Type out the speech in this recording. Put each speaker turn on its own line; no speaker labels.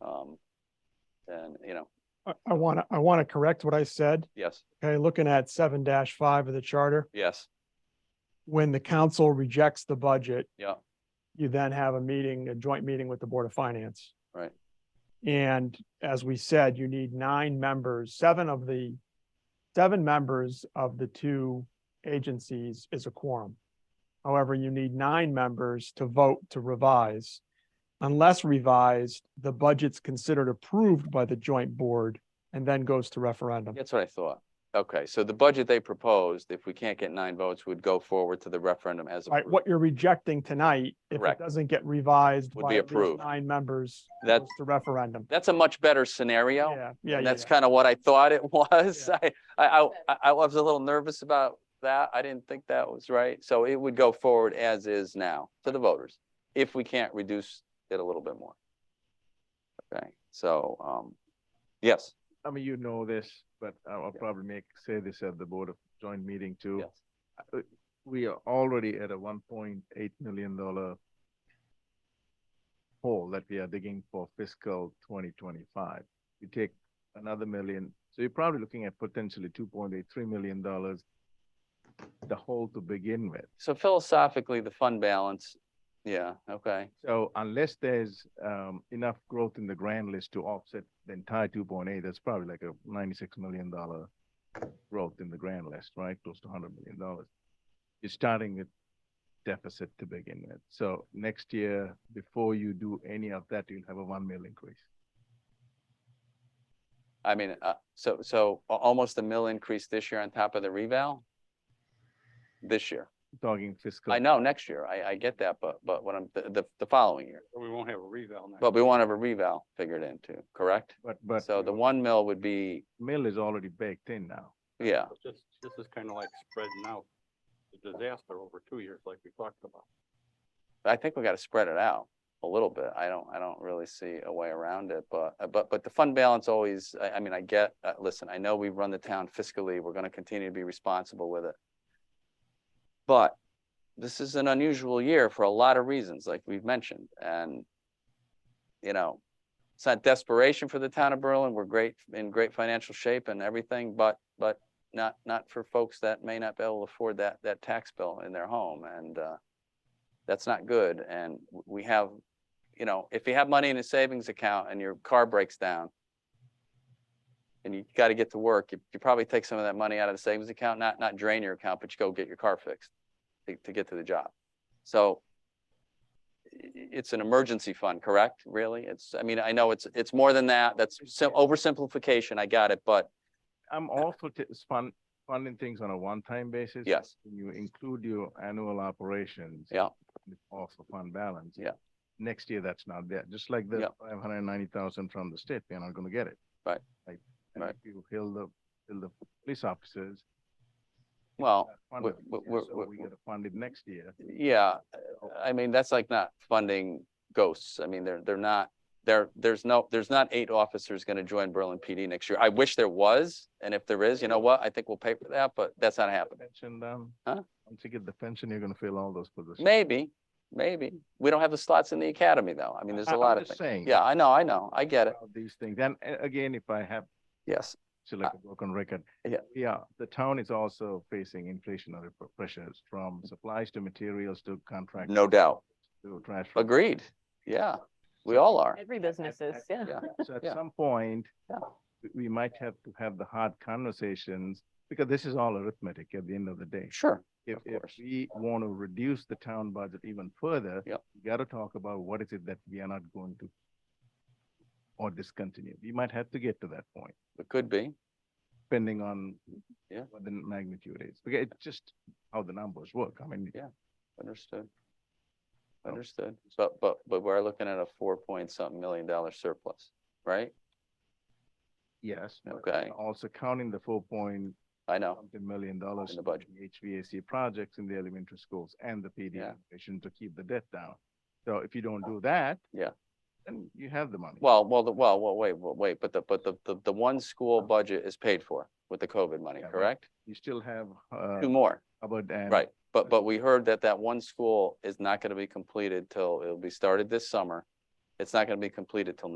Um, and, you know,
I, I want to, I want to correct what I said.
yes,
Okay, looking at seven five of the charter,
yes,
when the council rejects the budget,
yeah,
you then have a meeting, a joint meeting with the Board of Finance.
Right.
And as we said, you need nine members, seven of the, seven members of the two agencies is a quorum. However, you need nine members to vote to revise. Unless revised, the budget's considered approved by the joint board and then goes to referendum.
that's what I thought. Okay, so the budget they proposed, if we can't get nine votes, would go forward to the referendum as
Right,
approved.
what you're rejecting tonight, if it
Correct.
doesn't get revised
Would
by
be
at least
approved.
nine members,
That-
goes to referendum.
That's a much better scenario.
Yeah, yeah,
And
yeah.
that's kind of what I thought it was. I, I, I, I was a little nervous about that. I didn't think that was right. So it would go forward as is now to the voters, if we can't reduce it a little bit more. Okay, so, um, yes,
I mean, you know this, but I'll I'll
Yeah.
probably make, say this at the board of joint meeting too.
yes,
We are already at a one point eight million dollar hole that we are digging for fiscal twenty twenty-five. You take another million, so you're probably looking at potentially two point eight, three million dollars the hole to begin with.
so philosophically, the fund balance, yeah, okay,
So unless there's um enough growth in the grand list to offset the entire two point eight, that's probably like a ninety-six million dollar growth in the grand list, right? Close to hundred million dollars. You're starting with deficit to begin with. So next year, before you do any of that, you'll have a one mil increase.
I mean, uh, so, so a- almost a mill increase this year on top of the reval? This year,
Talking fiscal.
I know, next year, I, I get that, but, but what I'm, the, the, the following year.
But we won't have a reval next.
But we won't have a reval figured in too, correct?
But but
So the one mil would be,
mill is already baked in now.
yeah,
It's Just, this is kind of like spreading out the disaster over two years like we talked about.
I think we gotta spread it out a little bit. I don't, I don't really see a way around it, but, uh, but, but the fund balance always, I, I mean, I get, uh, listen, I know we run the town fiscally, we're gonna continue to be responsible with it. But this is an unusual year for a lot of reasons, like we've mentioned, and, you know, it's not desperation for the town of Berlin, we're great, in great financial shape and everything, but, but not, not for folks that may not be able to afford that, that tax bill in their home, and, uh, that's not good. And w- we have, you know, if you have money in a savings account and your car breaks down and you got to get to work, you, you probably take some of that money out of the savings account, not, not drain your account, but you go get your car fixed to, to get to the job. So i- i- it's an emergency fund, correct? Really? It's, I mean, I know it's, it's more than that. That's sim- oversimplification. I got it, but
I'm also t- fund funding things on a one-time basis.
yes,
when you include your annual operations.
Yeah.
Off the fund balance.
Yeah.
Next year, that's not there, just like
Yeah.
the five hundred and ninety thousand from the state, we are not gonna get it.
Right.
Like, and
Right.
if you heal the, heal the police officers.
well,
fund
we-
it this
we-
year,
we're-
So
we're-
we gotta fund it next year.
yeah,
Oh.
I mean, that's like not funding ghosts. I mean, they're, they're not, there, there's no, there's not eight officers gonna join Berlin PD next year. I wish there was, and if there is, you know what? I think we'll pay for that, but that's not happening.
Pension, um,
Huh?
once you get the pension, you're gonna fill all those positions.
Maybe, maybe. We don't have the slots in the academy, though. I mean, there's
I-
a
I'm
lot of
just
things.
saying
Yeah, I know, I know. I get it.
about These things, and uh, again, if I have,
Yes,
to like a broken record.
Uh, yeah.
Yeah, the town is also facing inflationary pr- pressures from supplies to materials to contracts.
Mm-hmm. no doubt.
to trash. from-
Agreed. Yeah, we all are.
Every business is, yeah.
Yeah.
So at
Yeah.
some point,
Yeah.
we- we might have to have the hard conversations, because this is all arithmetic at the end of the day.
Sure.
If,
of
if
course.
we want to reduce the town budget even further.
Yep.
We got to talk about what is it that we are not going to or discontinue. We might have to get to that point,
It could be.
depending on
Yeah.
what the magnitude is, because it's just how the numbers work. I mean,
Yeah. Understood.
So-
Understood. But, but, but we're looking at a four point something million dollar surplus, right?
yes. but
Okay.
Also counting the four point
I know.
something million dollars.
the budget.
in HVAC projects in the elementary schools and the PD
Yeah. Oh.
operation to keep the debt down. So if you don't do that.
Yeah.
Then you have the money.
Well, well, the, well, well, wait, well, wait, but the, but the, the, the one school budget is paid for with the COVID money,
Yeah, but-
correct?
You still have, uh,
Two more,
Hubbard and.
right? But, but we heard that that one school is not gonna be completed till, it'll be started this summer. It's not gonna be completed till